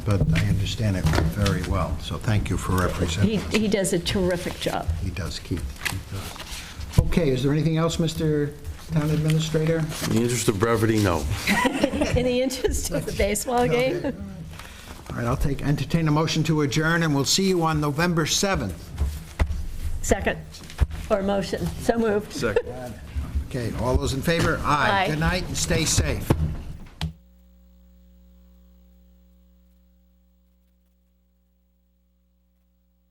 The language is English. but I understand it very well, so thank you for He, representing us. he does a terrific job. He does, Keith, he does. Okay, is there anything else, Mr. Town Administrator? In the interest of brevity, no. In the interest of the baseball game, All right, I'll take, entertain a motion to adjourn, and we'll see you on November 7th. second, or motion, so moved. Okay, all those in favor? Aye. Good night, and stay safe.